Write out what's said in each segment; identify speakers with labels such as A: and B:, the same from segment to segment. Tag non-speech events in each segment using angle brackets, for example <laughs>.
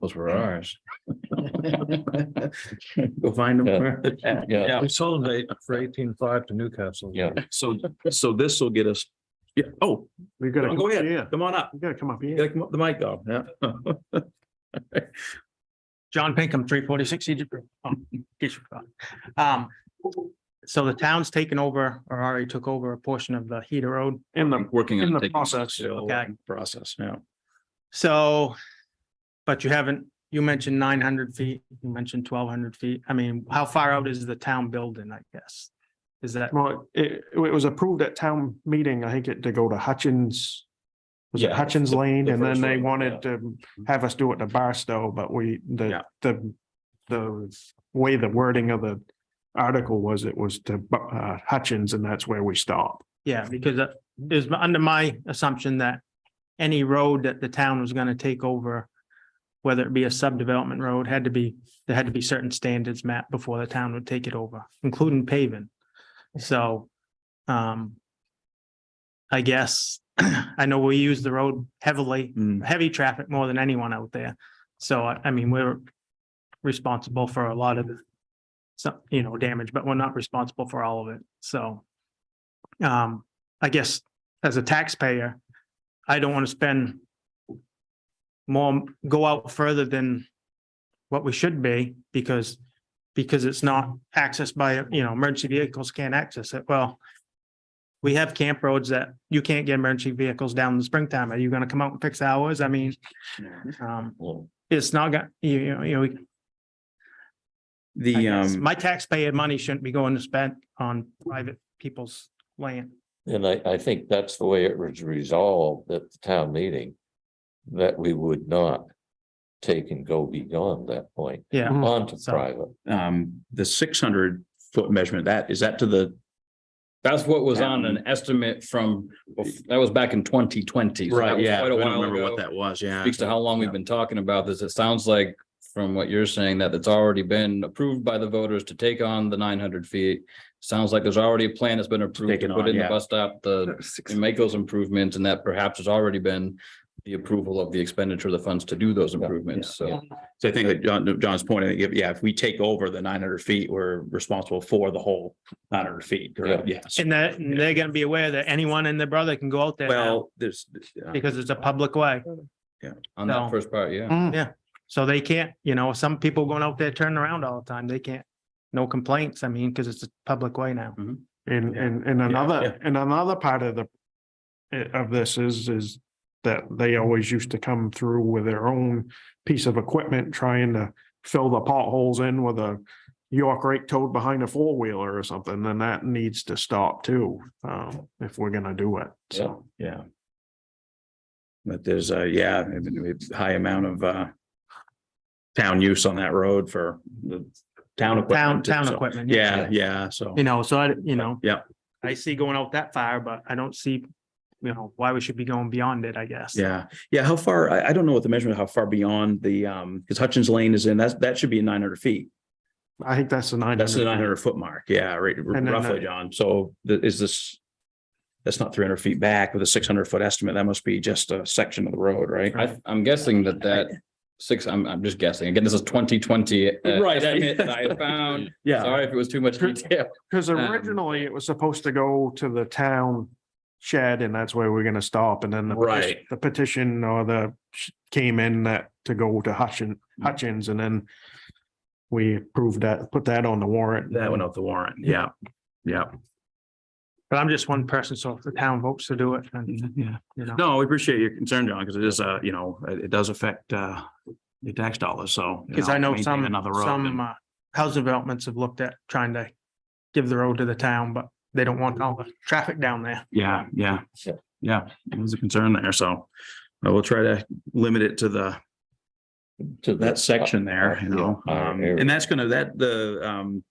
A: Those were ours. Go find
B: Yeah.
A: them.
B: Yeah,
C: We sold it for eighteen five to Newcastle.
B: yeah.
A: So, so this will get us, yeah, oh,
D: We gotta.
A: Oh,
D: come
A: go ahead.
D: Yeah,
A: come on up,
D: we gotta come up here.
A: Get the mic off, yeah.
E: John Pinkham, three forty-six Egypt Road. Um, Egypt Road. Um, so the town's taken over or already took over a portion of the heater road.
D: In the,
A: Working
D: in
A: on
D: the
A: taking-
D: process.
E: Okay.
A: Process, yeah.
E: So, but you haven't, you mentioned nine hundred feet, you mentioned twelve hundred feet. I mean, how far out is the town building, I guess? Is that,
D: Well, it, it was approved at town meeting. I think it to go to Hutchins. Was it
A: Yeah,
D: Hutchins
A: the-
D: Lane?
A: the
D: And then
A: first
D: they
A: one, Mm-hmm.
D: wanted to have us do it to Barstow, but we,
A: Yeah.
D: the, the, the way the wording of the article was, it was to uh, Hutchins and that's where we stopped.
E: yeah, because uh, it was under my assumption that any road that the town was gonna take over, whether it be a subdevelopment road, had to be, there had to be certain standards met before the town would take it over, including paving. So, um, I guess, <clears throat> I know we use the road heavily
A: Mm.
E: heavy traffic more than anyone out there. So I I mean, we're responsible for a lot of some, you know, damage, but we're not responsible for all of it. So um, I guess as a taxpayer, I don't want to spend more, go out further than what we should be because because it's not accessed by, you know, emergency vehicles can't access it. Well, we have camp roads that you can't get emergency vehicles down in the springtime. Are you gonna come out and fix ours? I mean, um,
B: Well,
E: it's not gonna, you, you know, you know, I
A: The,
E: guess
A: um,
E: my taxpayer money shouldn't be going to spend on private people's land.
B: And I, I think that's the way it was resolved at the town meeting. That we would not take and go beyond that point
E: Yeah,
D: Mhm.
B: onto
E: So-
B: private.
A: um, the six hundred foot measurement, that, is that to the,
F: That's what was on an estimate from, bef- that was back in twenty twenty.
A: right, yeah, I don't remember what that was, yeah.
F: Speaks to how long we've been talking about this. It sounds like from what you're saying that it's already been approved by the voters to take on the nine hundred feet. Sounds like there's already a plan that's been approved
A: Take it
F: to put
A: on,
F: in the
A: yeah.
F: bus stop, the, and make those improvements and that perhaps has already been the approval of the expenditure of the funds to do those improvements. So
A: So I think that John, John's point, I think, if- yeah, if we take over the nine hundred feet, we're responsible for the whole nine hundred feet, correct? Yes.
E: and that, and they're gonna be aware that anyone and their brother can go out there now
A: Well, there's, uh,
E: because it's a public way.
F: on
E: No.
F: that first part, yeah.
D: Mm.
E: So they can't, you know, some people going out there turning around all the time, they can't, no complaints, I mean, because it's a public way now.
D: And,
A: Yeah.
D: and, and another,
A: yeah.
D: and another part of the, eh, of this is, is that they always used to come through with their own piece of equipment, trying to fill the potholes in with a York rake towed behind a four wheeler or something, then that needs to stop too, um, if we're gonna do it, so.
A: yeah. But there's a, yeah, I mean, we have high amount of, uh, town use on that road for the town.
E: Town,
A: equipment,
E: town
A: so-
E: equipment.
A: Yeah, yeah, so.
E: You know, so I, you know.
A: Yeah.
E: I see going out that far, but I don't see, you know, why we should be going beyond it, I guess.
A: Yeah, yeah, how far, I, I don't know what the measurement, how far beyond the, um, because Hutchins Lane is in, that's, that should be nine hundred feet.
D: I think that's the nine.
A: That's the nine hundred foot mark, yeah, right,
D: then
A: roughly,
D: that-
A: John, so th- is this? That's not three hundred feet back with a six hundred foot estimate, that must be just a section of the road, right?
F: I, I'm guessing that that six, I'm, I'm just guessing. Again, this is twenty twenty. uh,
A: Right, I- <laughs>
F: I found, sorry if it was too much detail.
D: Cause
F: Um,
D: originally it was supposed to go to the town shed and that's where we're gonna stop and then the. peti-
A: Right.
D: The petition or the sh- came in that to go to Hutchin, Hutchins and then. We approved that, put that on the warrant.
A: That went off the warrant, yeah, yeah,
E: But I'm just one person, so if the town votes to do it, then,
A: yeah.
E: you know,
A: No, we appreciate your concern, John, because it is, uh, you know, it, it does affect, uh, your tax dollars, so. you
E: because I know
A: maintain
E: some,
A: Another road.
E: some,
A: and-
E: uh, housing developments have looked at trying to give the road to the town, but they don't want all the traffic down there.
A: Yeah, yeah,
B: Yeah.
A: yeah, it was a concern there, so I will try to limit it to the,
B: to the-
A: that section there, you
B: uh, Yeah,
A: know,
B: our
A: um,
B: area.
A: and that's gonna, that, the, um.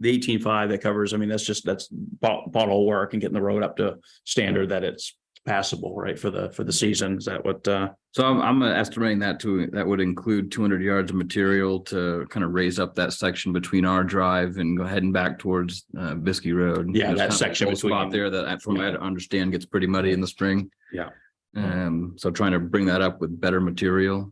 A: The eighteen five that covers, I mean, that's just, that's bot- bottle work and getting the road up to standard that it's passable, right, for the, for the season, is that what, uh?
F: So I'm, I'm estimating that to, that would include two hundred yards of material to kind of raise up that section between our drive and go heading back towards, uh, Biskie Road.
A: Yeah, that
F: There's kind of a
A: section
F: cold Spot
A: between-
F: there that I- from what I understand gets pretty muddy in the spring.
A: Yeah.
F: Um, so trying to bring that up with better material.